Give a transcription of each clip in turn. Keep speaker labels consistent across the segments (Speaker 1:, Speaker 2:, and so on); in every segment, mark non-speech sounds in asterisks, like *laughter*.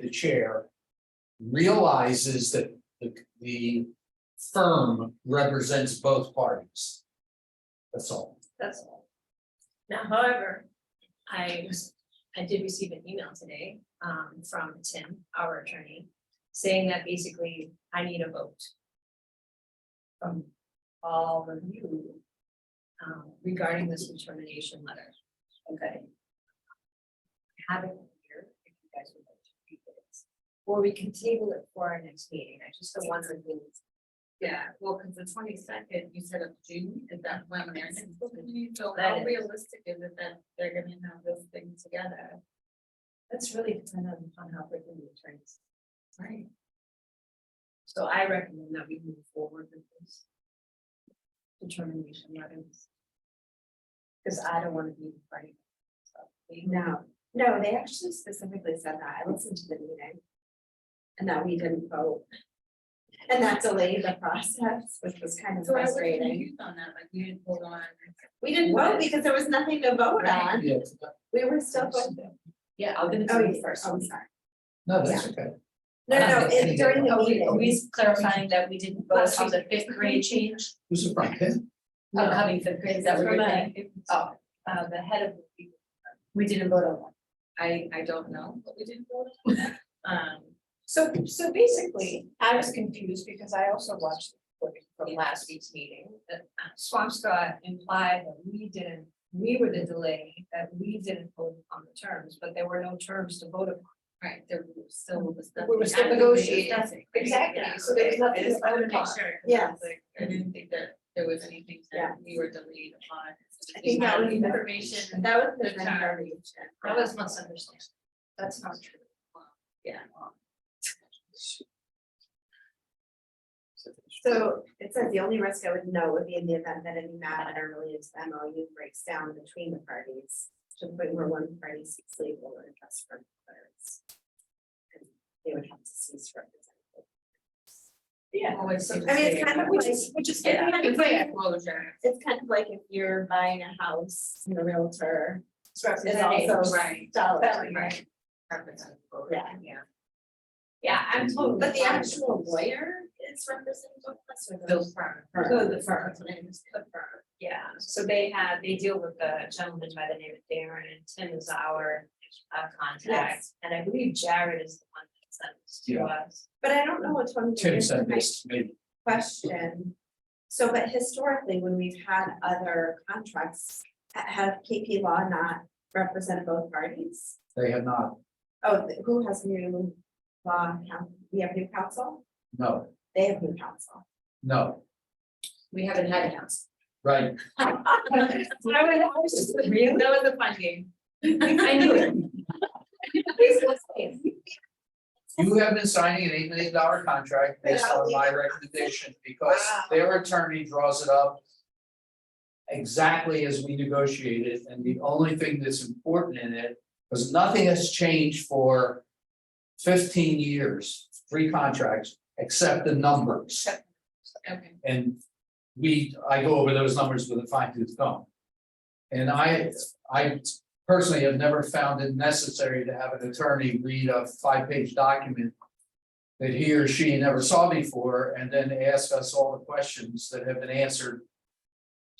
Speaker 1: the chair realizes that the, the firm represents both parties. That's all.
Speaker 2: That's all. Now, however, I was, I did receive an email today, um, from Tim, our attorney, saying that basically I need a vote. From all of you, um, regarding this determination letter. Okay. I Have it here, if you guys would like to read this, or we can table it for our next meeting, I just don't want to. lose-
Speaker 3: Yeah, well, because the twenty second, you said of June, is that when they're, so
Speaker 2: That
Speaker 3: how
Speaker 2: is.
Speaker 3: realistic is it that they're gonna have this thing together?
Speaker 2: That's really dependent on how quickly the attorneys.
Speaker 3: Right.
Speaker 2: So I recommend that we move forward with this. Determination letters. Cause I don't wanna be the party.
Speaker 4: No, no, they actually specifically said that. I listened to the meeting. And that we didn't vote. And that delayed the process, which was kind of
Speaker 3: So I was
Speaker 4: frustrating.
Speaker 3: confused on that, like you didn't hold on.
Speaker 4: We didn't vote because there was nothing to vote
Speaker 3: Right.
Speaker 4: on. We were still voting.
Speaker 2: Yeah, I'll give it
Speaker 4: Oh,
Speaker 2: to
Speaker 4: you
Speaker 2: you first.
Speaker 4: Oh, I'm sorry.
Speaker 1: No, that's okay.
Speaker 4: No, no, no,
Speaker 1: Yeah.
Speaker 4: it- during the
Speaker 2: Oh, we,
Speaker 4: meeting.
Speaker 2: we's clarifying that we didn't vote on the fifth
Speaker 3: *laughs*
Speaker 2: grade change,
Speaker 1: Who's the front pin?
Speaker 2: upcoming fifth grade, is that what you're saying? Oh,
Speaker 3: Uh, the head of, the-
Speaker 2: we didn't vote on one.
Speaker 3: I, I don't know, but we didn't vote on.
Speaker 2: *laughs*
Speaker 3: that. Um,
Speaker 2: So, so basically, I was confused because I also watched the recording from last week's meeting.
Speaker 3: uh, Swampscott implied that we didn't, we were the delay, that we didn't vote on the terms, but there were no terms to vote upon. Right, there was still was nothing.
Speaker 2: We were still
Speaker 3: actively
Speaker 2: negotiating.
Speaker 3: discussing, right?
Speaker 2: Exactly,
Speaker 3: Yeah,
Speaker 2: so there was
Speaker 3: okay.
Speaker 2: nothing
Speaker 3: I just
Speaker 2: to vote
Speaker 3: wanted to make
Speaker 2: upon.
Speaker 3: sure, 'cause I
Speaker 4: Yes.
Speaker 3: was like, I didn't think that there was anything
Speaker 4: Yeah.
Speaker 3: that we were delayed upon.
Speaker 4: I think that was the-
Speaker 3: Information,
Speaker 4: That was the
Speaker 3: The time.
Speaker 4: verbiage.
Speaker 3: that was misunderstanding.
Speaker 2: That's not true.
Speaker 3: Yeah.
Speaker 4: So it says the only risk I would know would be in the event that any matter related to the MOU breaks down between the parties. To the point where one party seeks legal or just from others. And They would have to cease representing.
Speaker 2: Yeah.
Speaker 3: Always seems
Speaker 4: I mean,
Speaker 3: fair.
Speaker 4: it's kind of
Speaker 2: Which
Speaker 4: like,
Speaker 2: is, which is.
Speaker 4: Yeah.
Speaker 2: fair.
Speaker 4: It's like-
Speaker 3: Closure.
Speaker 4: it's kind of like if you're buying a house and the realtor
Speaker 2: It's
Speaker 4: is
Speaker 2: representative.
Speaker 4: also
Speaker 3: right.
Speaker 4: selling.
Speaker 3: Right. Representative vote,
Speaker 4: Yeah.
Speaker 3: Yeah. Yeah, I'm totally.
Speaker 4: But the
Speaker 3: fine.
Speaker 4: actual lawyer is representing both of us or the-
Speaker 3: Those firms.
Speaker 4: Oh, the
Speaker 3: firm.
Speaker 4: firm, the firm.
Speaker 2: Yeah,
Speaker 3: So they have, they deal with a gentleman by the name of Darren, and Tim is our uh contact,
Speaker 4: Yes.
Speaker 3: and I believe Jared is the one that sends to
Speaker 1: Yeah.
Speaker 3: us.
Speaker 4: But I don't know which one.
Speaker 1: Tim
Speaker 4: is
Speaker 1: sent
Speaker 4: my
Speaker 1: this, maybe.
Speaker 4: question. So, but historically, when we've had other contracts, ha- have KP Law not represented both parties?
Speaker 1: They have not,
Speaker 4: Oh, th- who has new law, coun- we have new counsel,
Speaker 1: no,
Speaker 4: they have new counsel. *laughs*
Speaker 1: no,
Speaker 3: We haven't had a house.
Speaker 1: right.
Speaker 3: That was a fun game.
Speaker 2: I knew it.
Speaker 1: You have been signing an eight million dollar contract based on my recommendation because their attorney draws it up. Exactly as we negotiated, and the only thing that's important in it, because nothing has changed for. Fifteen years, three contracts, except the numbers,
Speaker 3: Okay.
Speaker 1: and we, I go over those numbers with a fine tooth comb. And I, I personally have never found it necessary to have an attorney read a five-page document. That he or she never saw before and then ask us all the questions that have been answered.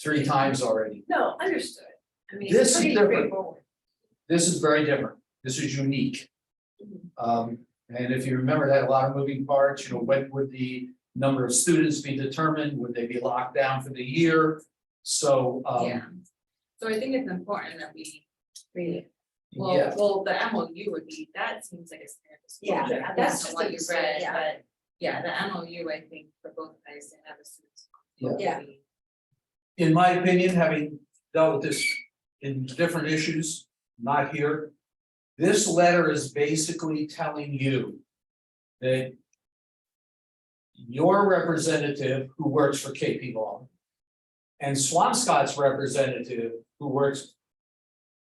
Speaker 1: Three times already.
Speaker 2: No, understood. I mean, it's
Speaker 1: This is
Speaker 2: pretty
Speaker 1: different.
Speaker 2: straightforward.
Speaker 1: This is very different. This is unique. Um, and if you remember that a lot of moving parts, you know, when would the number of students be determined? Would they be locked down for the year? So,
Speaker 3: Yeah.
Speaker 1: um,
Speaker 3: So I think it's important that we,
Speaker 4: Really?
Speaker 3: well,
Speaker 1: yeah,
Speaker 3: well, the MOU would be, that seems like a standard.
Speaker 4: Yeah,
Speaker 3: disclosure. I
Speaker 4: that's
Speaker 3: don't know
Speaker 4: just a
Speaker 3: what you read,
Speaker 4: disclosure, yeah.
Speaker 3: but yeah, the MOU, I think, for both guys and other students. would
Speaker 4: Yeah.
Speaker 3: be-
Speaker 1: in my opinion, having dealt with this in different issues, not here. This letter is basically telling you that your representative who works for KP Law and Swampscott's representative who works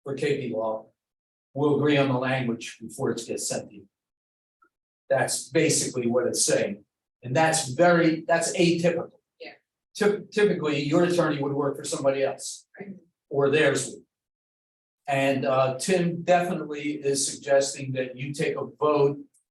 Speaker 1: for KP Law will agree on the language before it gets sent to you. That's basically what it's saying, and that's very, that's atypical.
Speaker 3: Yeah.
Speaker 1: Typ- Typically, your attorney would work for somebody else or theirs. would. And uh Tim definitely is suggesting that you take a vote